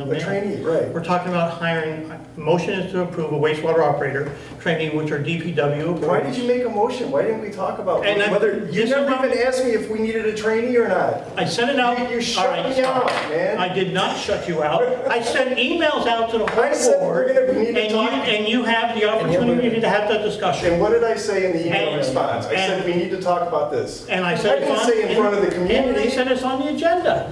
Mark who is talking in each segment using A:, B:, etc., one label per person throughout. A: A
B: Mayor.
A: trainee, right.
B: We're talking about hiring, motion is to approve a wastewater operator trainee, which are DPW.
A: Why did you make a motion? Why didn't we talk about
B: And I'm-
A: whether, you
B: this is
A: never
B: my-
A: even asked me if we needed a trainee or not.
B: I sent it out.
A: You- you shut
B: All right,
A: me
B: stop.
A: out, man.
B: I did not shut you out. I sent emails out to the
A: I
B: whole
A: said we're
B: board.
A: gonna- we need
B: And
A: to
B: you,
A: talk-
B: and you have the
A: And you-
B: opportunity to have that discussion.
A: And what did I say in the email
B: And-
A: response? I said,
B: and-
A: we need to talk about this.
B: And I said it's on.
A: I didn't say in front of the
B: and- And they
A: community.
B: said it's on the agenda.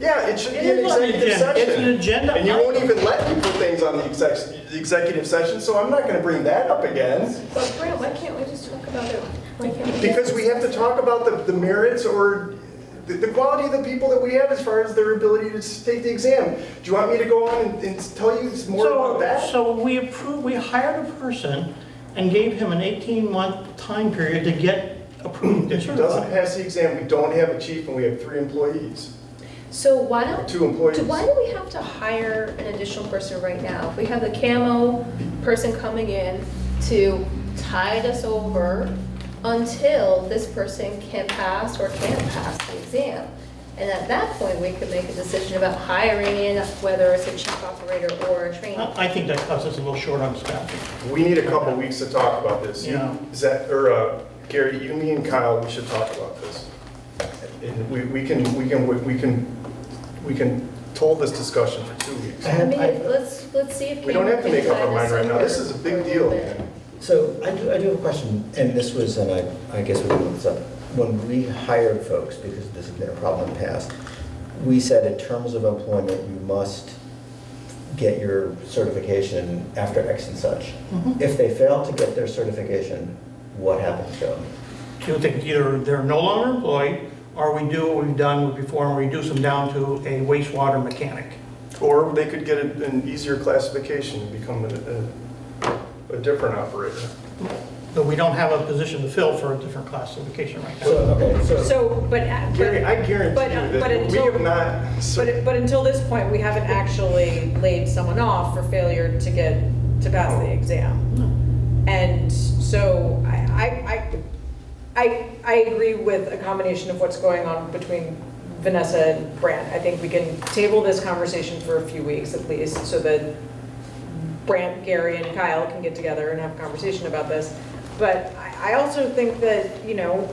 A: Yeah, it should
B: It
A: be an
B: is on the
A: executive
B: agenda.
A: session.
B: It's an agenda
A: And you won't
B: item.
A: even let me put things on the exec- the executive session, so I'm not gonna bring that up again.
C: But Brent, why can't we just talk about it? Why can't we?
A: Because we have to talk about the, the merits or the, the quality of the people that we have as far as their ability to s- take the exam. Do you want me to go on and, and tell you more about that?
B: So, so we approved, we hired a person and gave him an 18-month time period to get approved and
A: If he doesn't
B: certified.
A: pass the exam, we don't have a chief and we have three employees.
C: So why don't?
A: Two employees.
C: Why do we have to hire an additional person right now? If we have the camo person coming in to tide us over until this person can pass or can't pass the exam. And at that point, we could make a decision about hiring in, whether it's a chief operator or a trainee.
B: I I think that cuts us a little short on staff.
A: We need a couple weeks to talk about this. You-
B: Yeah.
A: Is that, or uh, Gary, you, me and Kyle, we should talk about this. And we, we can, we can, we can, we can hold this discussion for two weeks.
C: I mean, let's, let's see if.
A: We don't have to
C: Cameron can
A: make up our
C: tide us
A: mind right now.
C: over
A: This is a
C: for
A: big
C: little
A: deal,
C: bit.
A: man.
D: So I do, I do have a question, and this was, and I, I guess we brought this up. When we hired folks, because this has been a problem in the past, we said in terms of employment, you must get your certification after X and such. If they fail to get their certification, what happens to them?
B: Two things, either they're no longer employed, or we do what we've done before and reduce them down to a wastewater mechanic.
A: Or they could get a- an easier classification and become a, a, a different operator.
B: But we don't have a position to fill for a different classification right
D: So,
B: now.
D: okay, so,
E: So, but. at-
A: Gary, I
E: but- uh,
A: guarantee you
E: but
A: that we
E: until-
A: have not,
E: But, but until this point, we haven't actually laid someone off for failure to get, to pass the exam. And so I, I, I, I, I agree with a combination of what's going on between Vanessa and Brant. I think we can table this conversation for a few weeks at least, so that Brant, Gary, and Kyle can get together and have a conversation about this. But I, I also think that, you know,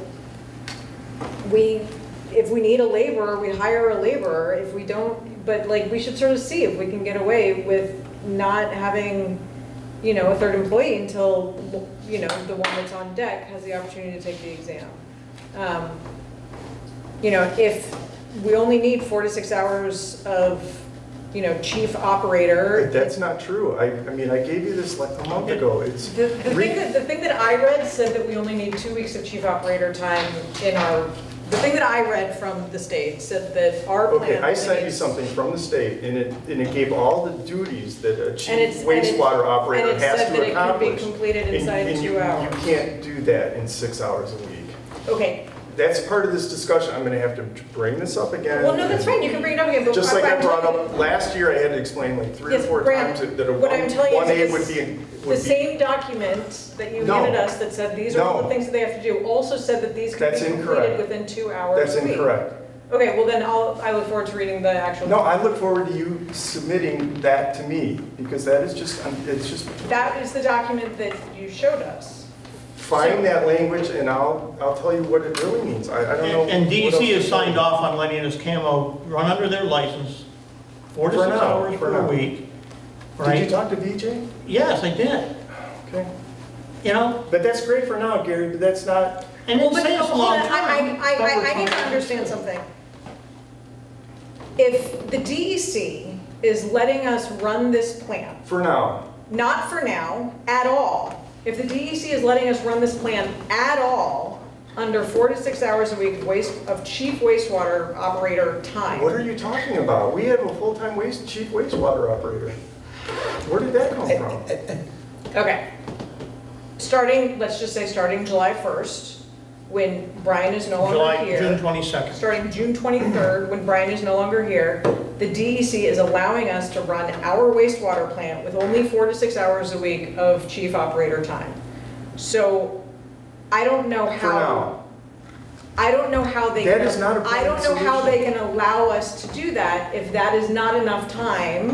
E: we, if we need a laborer, we hire a laborer, if we don't, but like, we should sort of see if we can get away with not having, you know, a third employee until, you know, the one that's on deck has the opportunity to take the exam. Um, You know, if we only need four to six hours of, you know, chief operator.
A: that's not true. I, I mean, I gave you this like a month ago. It's.
E: The, the
A: re-
E: thing that, the thing that I read said that we only need two weeks of chief operator time in our, the thing that I read from the state said that our plan.
A: Okay, I sent you
E: is-
A: something from the state, and it, and it gave all the duties that a
E: And
A: chief
E: it's- and it-
A: wastewater operator
E: and it
A: has
E: said
A: to
E: that it could be
A: accomplish.
E: completed
A: And-
E: inside
A: and you-
E: two hours.
A: You can't do that in six hours a week.
E: Okay,
A: That's part of this discussion, I'm gonna have to bring this up again.
E: well, no, that's fine, you can bring it up again, but.
A: Just
E: what
A: like I
E: I'm
A: brought
E: telling-
A: up, last year I had to explain like three or
E: Yes,
A: four
E: Brad,
A: times that a one,
E: what I'm telling you is
A: one A
E: this-
A: would be, in-
E: The
A: would be.
E: same document that you
A: No.
E: handed us that said these are all
A: No.
E: the things that they have to do, also said that these could be
A: That's
E: completed
A: incorrect.
E: within two hours
A: That's
E: a week.
A: incorrect.
E: Okay, well then I'll, I look forward to reading the actual.
A: No, I look forward to you submitting that to me, because that is just, um, it's just,
E: That is the document that you showed us.
A: find that language and I'll, I'll tell you what it really means. I, I don't know.
B: And
A: what
B: DEC
A: else to
B: has
A: tell you.
B: signed off on letting us camo run under their license, four to
A: For
B: six
A: now,
B: hours
A: for
B: per
A: now.
B: week,
A: Did you
B: right?
A: talk to BJ?
B: Yes, I did,
A: Okay.
B: you know,
A: But that's great for now, Gary, but that's not,
B: and
E: Well,
B: it
E: but
B: saves
E: no,
B: a
E: hold on,
B: long
E: I-
B: time.
E: I, I, I, I
B: Coverage
E: need to
B: time.
E: understand something. If the DEC is letting us run this plan,
A: for now.
E: not for now, at all, if the DEC is letting us run this plan at all, under four to six hours a week of waste, of chief wastewater operator time.
A: What are you talking about? We have a full-time waste, chief wastewater operator. Where did that come from?
E: Okay. Starting, let's just say, starting July 1st, when Brian is no longer
B: July,
E: here.
B: June 22nd.
E: starting June 23rd, when Brian is no longer here, the DEC is allowing us to run our wastewater plant with only four to six hours a week of chief operator time. So I don't know
A: For now.
E: how, I don't know how they.
A: That
E: can-
A: is not a
E: I don't know
A: permanent
E: how they
A: solution.
E: can allow us to do that if that is not enough time